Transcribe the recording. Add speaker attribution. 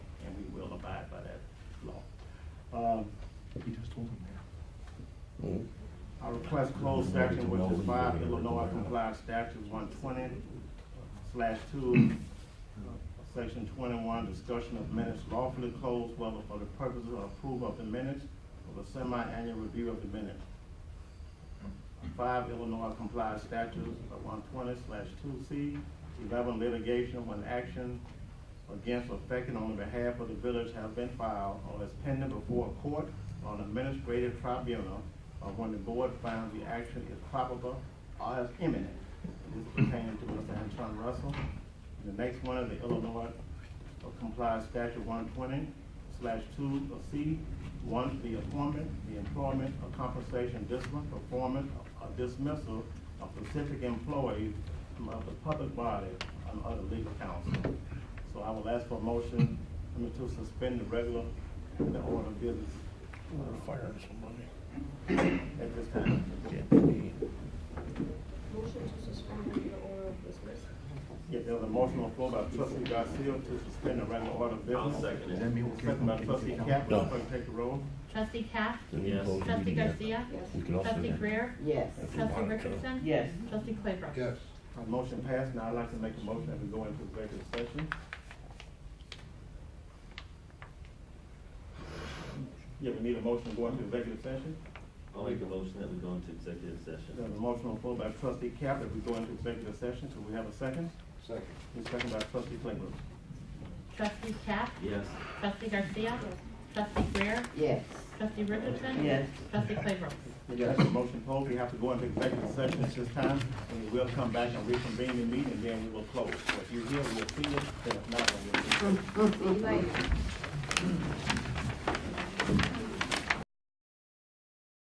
Speaker 1: Um,
Speaker 2: You just told him that.
Speaker 1: I request closed session, which is by Illinois Compliance Statute one twenty slash two, section twenty-one, discussion of minutes lawfully closed, whether for the purposes of approval of the minutes or the semi-annual review of the minutes. Five Illinois Compliance Statutes one twenty slash two C, eleven litigation when action against or affecting on behalf of the village has been filed or is pending before a court or an administrative tribunal, or when the board finds the action is probable or is imminent. This pertains to Mr. Anton Russell. And The next one is the Illinois Compliance Statute one twenty slash two C, one, the appointment, the employment, or compensation, discipline, performance, or dismissal of specific employees of the public body and other legal counsel. So I will ask for a motion, I mean, to suspend the regular, the order of business
Speaker 2: We're firing somebody.
Speaker 1: at this time.
Speaker 3: Motion to suspend the order of business.
Speaker 1: Yeah, there's a motion on the floor by trustee Garcia to suspend the regular order of business.
Speaker 2: Does that mean we'll kick
Speaker 1: Second by
Speaker 2: him?
Speaker 1: trustee Caplan,
Speaker 4: No.
Speaker 1: clerk take the roll.
Speaker 5: Trustee Cap?
Speaker 4: Yes.
Speaker 5: Trustee Garcia?
Speaker 3: Yes.
Speaker 4: You can also do
Speaker 5: Trustee
Speaker 4: that.
Speaker 5: Greer?
Speaker 6: Yes.
Speaker 5: Trustee Richardson?
Speaker 6: Yes.
Speaker 5: Trustee Claybrook?
Speaker 7: Yes.
Speaker 1: Uh, Motion passed, now I'd like to make a motion that we go into executive session. Yeah, we need a motion to go into executive session.
Speaker 8: I'll make a motion that we go into executive session.
Speaker 1: There's a motion on the floor by trustee Cap that we go into executive session, so we have a second.
Speaker 7: Second.
Speaker 1: And second by trustee Claybrook.
Speaker 5: Trustee Cap?
Speaker 8: Yes.
Speaker 5: Trustee Garcia? Trustee Greer?
Speaker 6: Yes.
Speaker 5: Trustee Richardson?
Speaker 6: Yes.
Speaker 5: Trustee Claybrook?
Speaker 1: We got the motion pulled, we have to go into executive session at this time, and we will come back and reconvene the meeting, and then we will close. So if you're here, we'll see you, then if not, then we'll.
Speaker 3: Like,